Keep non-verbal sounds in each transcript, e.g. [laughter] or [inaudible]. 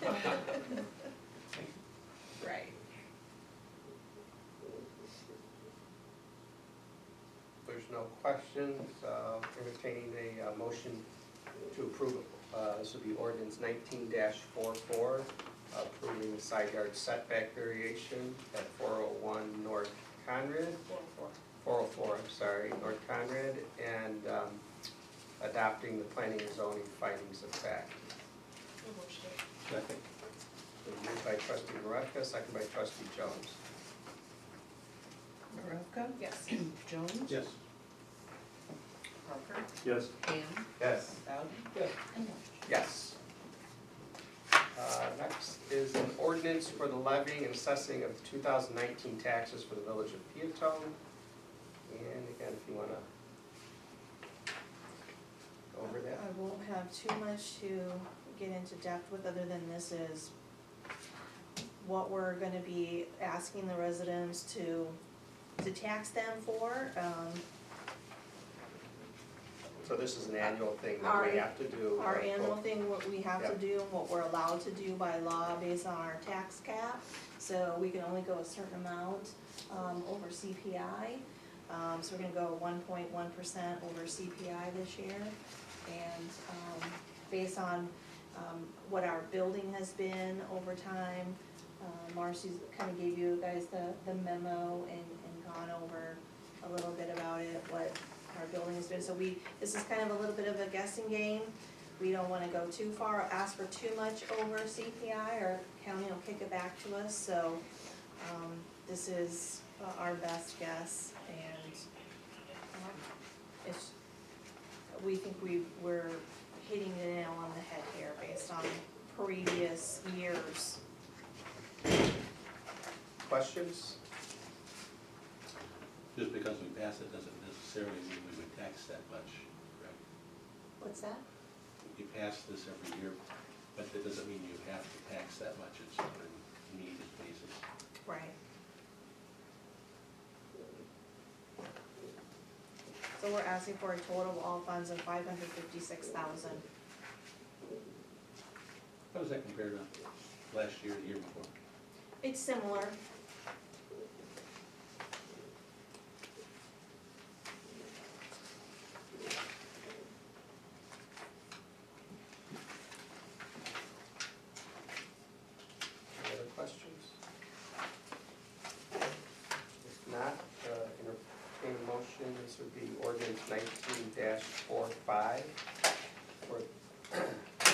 [laughs] no questions, uh, entertaining a uh, motion to approve. Uh, This would be ordinance nineteen 44 approving the side yard setback variation at four oh one North Conrad, four oh four, I'm sorry, North Conrad, and um, adopting the planning and zoning findings of fact. Second. Moved by trustee Maravka, second by trustee Jones. Maravka? Yes. Jones? Yes. Parker? Yes. Ham? Yes. Bowden? Yes. And Lynch? Yes. Uh, Next is an ordinance for the levying and assessing of 2019 taxes for the village of Peatone. And again, if you want to go over that. I won't have too much to get into depth with, other than this is what we're gonna be asking the residents to, to tax them for. Um, So this is an annual thing that we Our- have to do. uh, our annual both- thing, what we have to do, and what we're allowed to do by law based on our tax cap. So we can only go a certain amount, um, over CPI. Um, so we're gonna go one point one percent over CPI this year. And, um, based on, um, what our building has been over time, uh, Marcy's kinda gave you guys the, the memo and, and gone over a little bit about it, what our building has been. So we, this is kind of a little bit of a guessing game. We don't wanna go too far, or ask for too much over CPI, or county will kick it back to us, so, um, this is uh, our best guess, and, um, it's, we think we, we're hitting the nail on the head here based on previous years. Questions? Just because we pass it doesn't necessarily mean we would tax that much, correct? What's that? You pass this every year, but that doesn't mean you have to tax that much, it's on a needed basis. Right. So we're asking for a total of all funds of five hundred fifty-six thousand. How does that compare to last year, the year before? It's similar. Any other questions? If not, uh, entertain a motion, this would be ordinance nineteen 45 for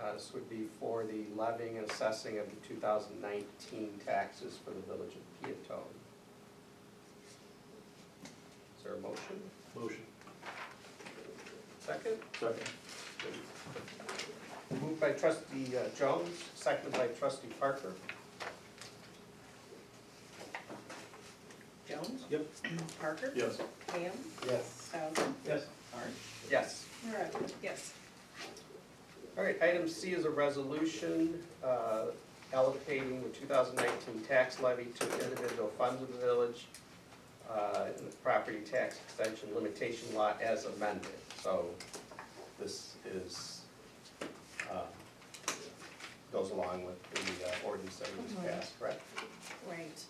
Uh, This would be for the levying and assessing of the two thousand nineteen taxes for the village of Peatone. Is there a motion? Motion. Second? Second. Moved by trustee uh, Jones, seconded by trustee Parker. Jones? Yep. Parker? Yes. Ham? Yes. Bowden? Yes. Yes. Maravka? Yes. All right, item C is a resolution uh, allocating the 2019 tax levy to individual funds of the village uh, in the property tax extension limitation law as amended. So this is, uh, goes along with the uh, ordinance that we just passed, correct? Right.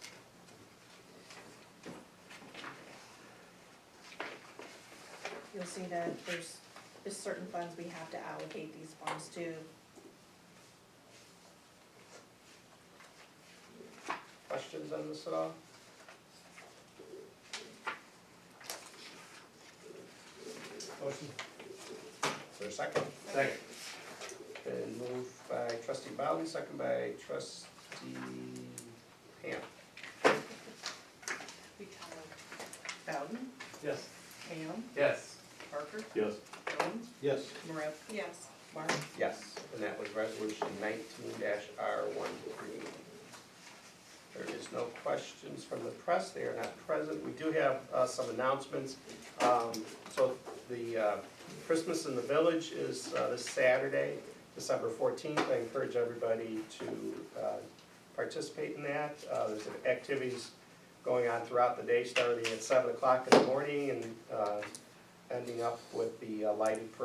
You'll see that there's, there's certain funds we have to allocate these funds to. Questions on this at all? Motion. Is there a second? Second. Been moved by trustee Bowden, second by trustee Ham. We tell them. Bowden? Yes. Ham? Yes. Parker? Yes. Jones? Yes. Maravka? Yes. Mark? Yes, and that was resolution nineteen R one three. There is no questions from the press, they are not present. We do have uh, some announcements. Um, So the uh, Christmas in the Village is uh, this Saturday, December fourteenth. I encourage everybody to uh, participate in that. Uh, There's activities going on throughout the day, starting at seven o'clock in the morning and uh, ending up with the uh, lighted parade.